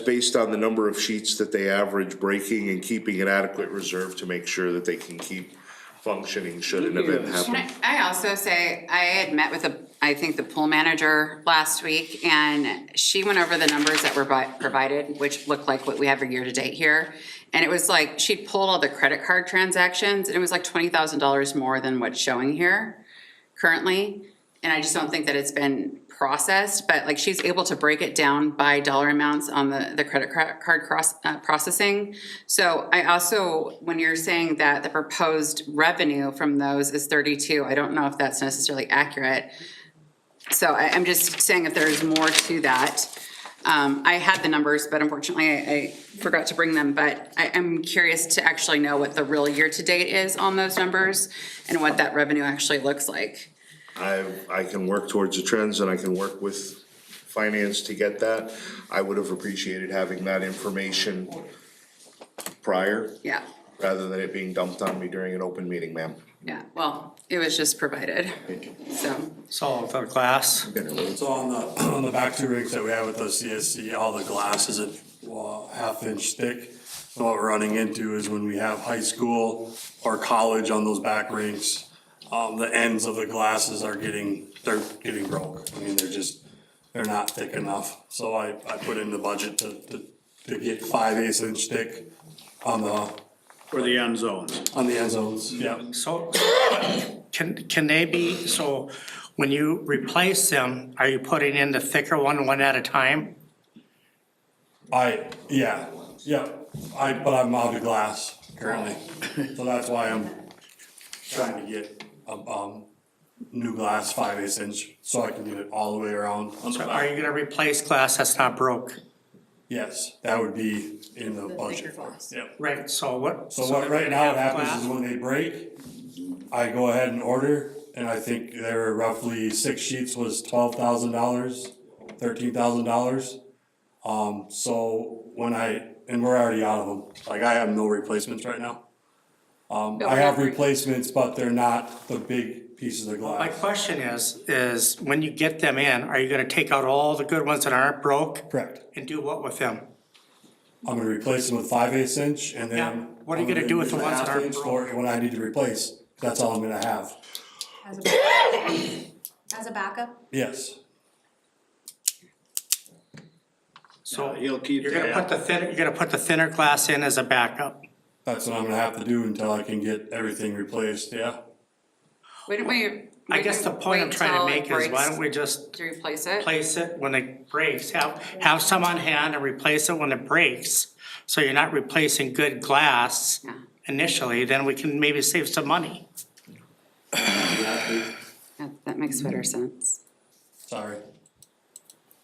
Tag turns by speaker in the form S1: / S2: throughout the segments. S1: based on the number of sheets that they average breaking and keeping an adequate reserve to make sure that they can keep functioning should an event happen.
S2: Can I I also say, I had met with the, I think the pool manager last week, and she went over the numbers that were bu- provided, which look like what we have year to date here. And it was like, she pulled all the credit card transactions, and it was like twenty thousand dollars more than what's showing here currently. And I just don't think that it's been processed, but like she's able to break it down by dollar amounts on the, the credit cra- card cross, uh, processing. So I also, when you're saying that the proposed revenue from those is thirty-two, I don't know if that's necessarily accurate. So I, I'm just saying if there's more to that. Um, I had the numbers, but unfortunately I, I forgot to bring them, but I, I'm curious to actually know what the real year-to-date is on those numbers and what that revenue actually looks like.
S1: I, I can work towards the trends and I can work with finance to get that. I would have appreciated having that information prior,
S2: Yeah,
S1: rather than it being dumped on me during an open meeting, ma'am.
S2: yeah, well, it was just provided, so,
S3: It's all for glass.
S4: It's on the, on the back two rigs that we have with the CSC, all the glass is a well, half inch thick. So what we're running into is when we have high school or college on those back rinks, um, the ends of the glasses are getting, they're getting broke. I mean, they're just, they're not thick enough. So I, I put in the budget to, to, to get five eighths inch thick on the,
S5: For the end zones.
S4: on the end zones, yeah.
S3: So can, can they be, so when you replace them, are you putting in the thicker one, one at a time?
S4: I, yeah, yeah, I, but I'm out of glass currently, so that's why I'm trying to get a, um, new glass, five eighths inch, so I can get it all the way around on the
S3: Are
S4: back.
S3: you gonna replace glass that's not broke?
S4: Yes, that would be in the budget.
S2: glass.
S4: Yep,
S3: Right, so what?
S4: so what, right now
S3: if
S4: what
S3: we have
S4: happens is
S3: glass-
S4: when they break, I go ahead and order, and I think there were roughly six sheets was twelve thousand dollars, thirteen thousand dollars. Um, So when I, and we're already out of them, like I have no replacements right now. Um, I have replacements, but they're not the big pieces of
S3: My
S4: glass.
S3: question is, is when you get them in, are you gonna take out all the good ones that aren't broke
S4: Correct.
S3: and do what with them?
S4: I'm gonna replace them with five eighths inch and
S3: Yeah.
S4: then.
S3: What are you
S4: I'm
S3: gonna do with the
S4: use
S3: ones that
S4: half
S3: aren't
S4: inch for When I need to replace, that's all I'm gonna have.
S6: As a backup? As a backup?
S4: Yes,
S3: So
S5: Uh, He'll keep
S3: you're gonna put
S5: that.
S3: the thinner, you're gonna put the thinner glass in as a backup.
S4: that's what I'm gonna have to do until I can get everything replaced, yeah.
S2: Wouldn't we?
S3: I guess the point I'm trying to make is why don't we just
S2: To replace it?
S3: replace it when it breaks, have, have some on hand and replace it when it breaks. So you're not replacing good glass
S2: Yeah.
S3: initially, then we can maybe save some money.
S2: That- That makes better
S3: Mm-hmm.
S2: sense.
S4: Sorry.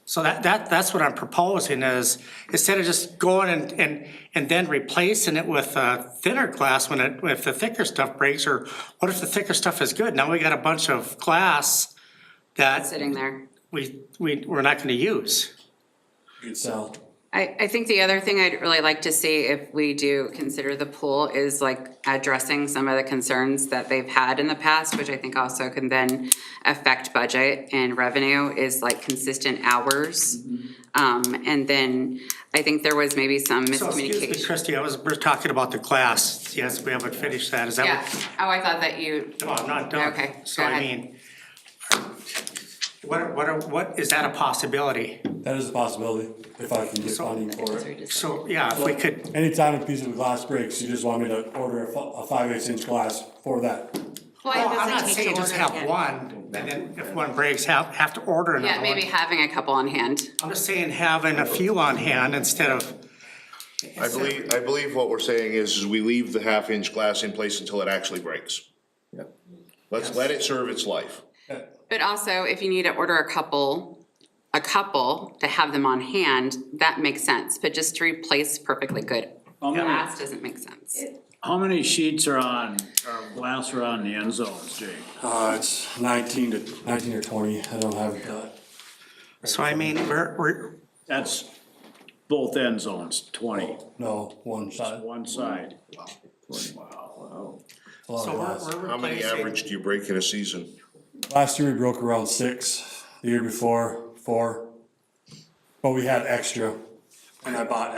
S3: So that, that, that's what I'm proposing is, instead of just going and, and, and then replacing it with uh, thinner glass when it, if the thicker stuff breaks, or what if the thicker stuff is good? Now we got a bunch of glass that
S2: Sitting there.
S3: we, we, we're not gonna use.
S4: You could sell.
S2: I, I think the other thing I'd really like to see if we do consider the pool is like addressing some of the concerns that they've had in the past, which I think also can then affect budget and revenue, is like consistent hours.
S3: Mm-hmm.
S2: Um, and then I think there was maybe some
S3: So excuse me,
S2: miscommunication.
S3: Christie, I was, we're talking about the glass, yes, we haven't finished that, is that
S2: Yeah,
S3: what?
S2: oh, I thought that you,
S3: No, I'm not done.
S2: Okay,
S3: So
S2: go
S3: I
S2: ahead.
S3: mean, what, are- what, are- what, is that a possibility?
S4: That is a possibility, if I can get funding for it.
S3: So, yeah, if we could,
S4: Anytime a piece of glass breaks, you just want me to order a fi- a five eighths inch glass for that.
S3: well,
S6: does
S3: I'm
S6: it
S3: not
S6: take
S3: saying
S6: to
S3: just
S6: order
S3: have
S6: again?
S3: one, and then if one breaks, have, have to order another
S2: yeah,
S3: one.
S2: maybe having a couple on hand.
S3: I'm just saying having a few on hand instead of,
S1: I believe, I believe what we're saying is, is we leave the half inch glass in place until it actually breaks. Let's let it serve its life.
S2: But also, if you need to order a couple, a couple to have them on hand, that makes sense, but just to replace perfectly good
S5: How many,
S2: glass doesn't make sense.
S5: how many sheets are on, or glass are on the end zones, Jake?
S4: Uh, it's nineteen to, nineteen or twenty, I don't have it.
S3: so I mean, we're, we're,
S5: That's both end zones, twenty,
S4: No, one shot.
S5: one side.
S4: A lot
S3: so
S4: of
S3: we're-
S4: glass.
S3: we're
S1: How many
S3: replacing.
S1: average do you break in a season?
S4: Last year we broke around six, the year before, four. But we had extra. And I bought